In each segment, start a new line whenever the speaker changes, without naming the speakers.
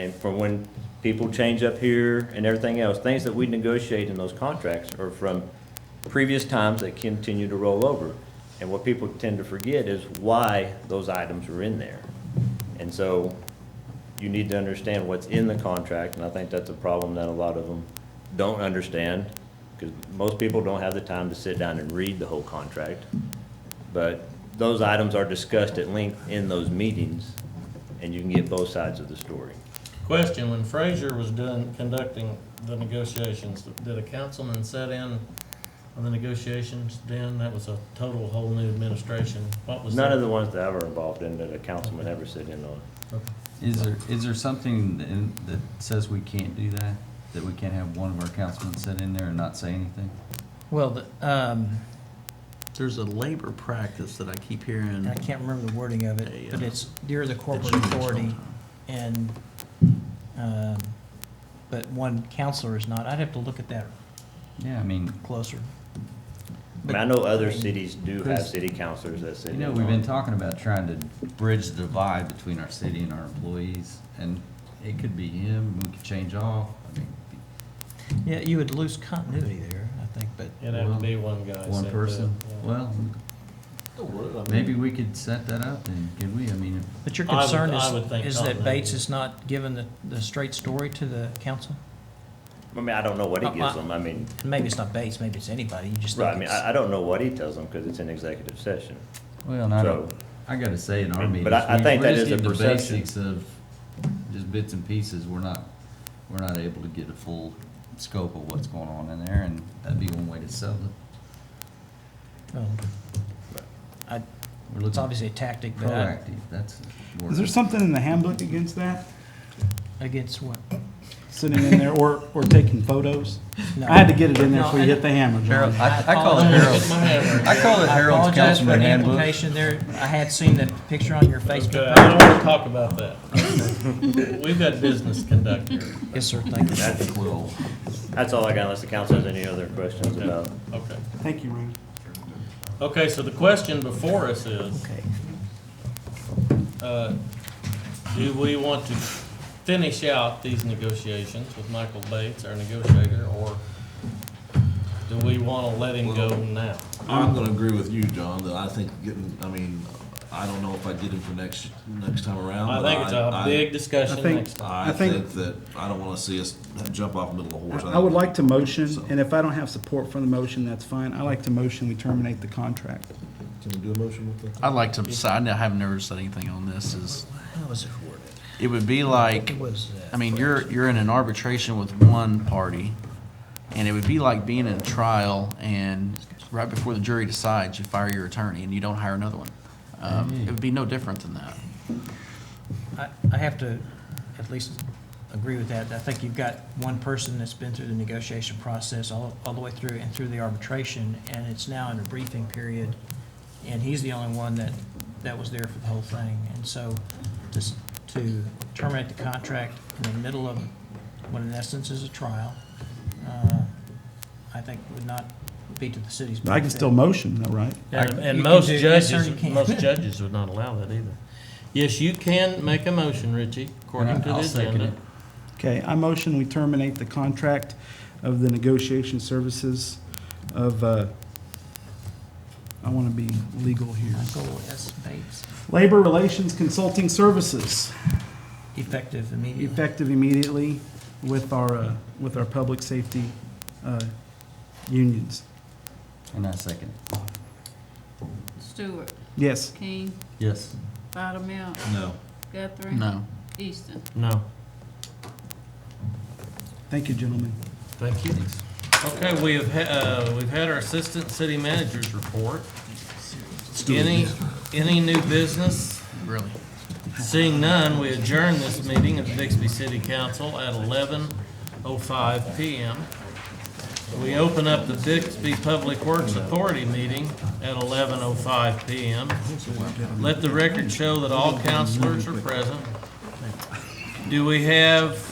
And from when people change up here and everything else, things that we negotiate in those contracts are from previous times that continue to roll over. And what people tend to forget is why those items are in there. And so you need to understand what's in the contract, and I think that's a problem that a lot of them don't understand, because most people don't have the time to sit down and read the whole contract. But those items are discussed at length in those meetings, and you can get both sides of the story.
Question, when Frazier was doing, conducting the negotiations, did a councilman set in on the negotiations then? That was a total whole new administration. What was that?
None of the ones that I were involved in that a councilman ever sit in on.
Okay.
Is there, is there something that- in- that says we can't do that? That we can't have one of our councilmen sit in there and not say anything?
Well, the, um,
There's a labor practice that I keep hearing.
Hmm.
I can't remember the wording of it, but
Yeah.
it's near the corporate
It's-
authority and, um, but one counselor is not. I'd have to look at that
Yeah, I mean,
closer.
I mean, I know other cities do have city councilors that sit
you
in
know, we've been
on.
talking about trying to bridge the divide between our city and our employees, and it could be him, we could change off. I mean,
Yeah, you would lose continuity there, I think, but
It'd have to be one guy. set
One
to-
person,
yeah.
well, maybe we could set that up then, could we? I mean,
But your
I would-
concern
I would think
is, is that
not,
Bates
maybe.
is not giving the, the straight story to the council?
I mean, I don't know
Uh,
what he gives them, I mean,
Maybe it's not Bates, maybe it's anybody, you just
right, I
think
mean,
it's,
I, I don't know what he tells them, because it's an executive session.
well, and I
So-
don't, I gotta say, in our meetings,
But I- I
we-
think
we're
that
just
is a
getting the
perception.
basics of just bits and pieces, we're not, we're not able to get a full scope of what's going on in there, and that'd be one way to sell it.
well, I-
We're
it's
looking
obviously a tactic, but I-
proactive, that's. the word.
Is there something in the handbook against that?
against what?
Sitting in there or, or taking photos?
No.
I had to get it in there so
No,
we
I-
hit the hammer,
Harold,
John.
I, I call it
Oh,
Harold's,
my hammer.
I call it
I
Harold's
apologize for
councilman
the
handbook.
implication there. I had seen the picture on your
Okay, I
Facebook.
don't wanna talk about that. We've got business conduct here.
Yes, sir, thank you.
That's,
Quill.
that's all I got, unless the council has any other questions about.
Okay.
Thank you, Randy.
Okay, so the question before us is,
Okay.
uh, do we want to finish out these negotiations with Michael Bates, our negotiator, or do we want to let him go now?
I'm gonna agree with you, John, that I think getting, I mean, I don't know if I get him for next, next time around.
I
but
think it's a
I-
big discussion
I think-
next time.
I
I think-
think that, I don't wanna see us jump off the middle of a horse.
I I would like to motion, and if I don't have support for the motion, that's fine. I like to motion we terminate the contract.
Can we do a motion with that?
I'd like to, say- I know- I haven't never said anything on this, is,
How was it worded?
it would be like,
It was, uh,
I mean, you're, you're in an arbitration with one party, and it would be like being in a trial, and right before the jury decides, you fire your attorney, and you don't hire another one. Um, It would be no different than that.
I, I have to at least agree with that. I think you've got one person that's been through the negotiation process all, all the way through and through the arbitration, and it's now in a briefing period, and he's the only one that, that was there for the whole thing. And so just to terminate the contract in the middle of what in essence is a trial, uh, I think would not be to the city's benefit.
I can still motion though, right?
And,
I-
and
you can
most
do- yes, sir,
judges,
you can.
most judges would not allow that either. Yes, you can make a motion, Richie, according
And
to
I-
the
I'll second
agenda.
it.
Okay, I motion we terminate the contract of the negotiation services of, uh, I want to be legal here.
Michael S. Bates,
Labor Relations Consulting Services,
effective immediately.
effective immediately with our, uh, with our public safety uh, unions.
And I second. it.
Stewart,
Yes.
King,
Yes.
Bottomilk,
No.
Guthrie.
No.
Easton.
No,
Thank you, gentlemen.
thank you. Okay, we have, ha- uh, we've had our assistant city manager's report. Any, any new business?
Really?
Seeing none, we adjourn this meeting of the Bixby City Council at eleven oh five PM. We open up the Bixby Public Works Authority meeting at eleven oh five PM. Let the record show that all councilors are present. Do we have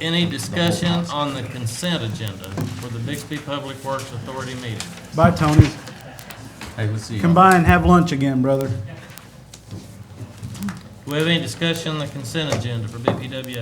any discussion on the consent agenda for the Bixby Public Works Authority meeting?
Bye, Tony.
Hey, we'll see you.
Come by and have lunch again, brother.
We Do we have any discussion on the consent agenda for BPWA?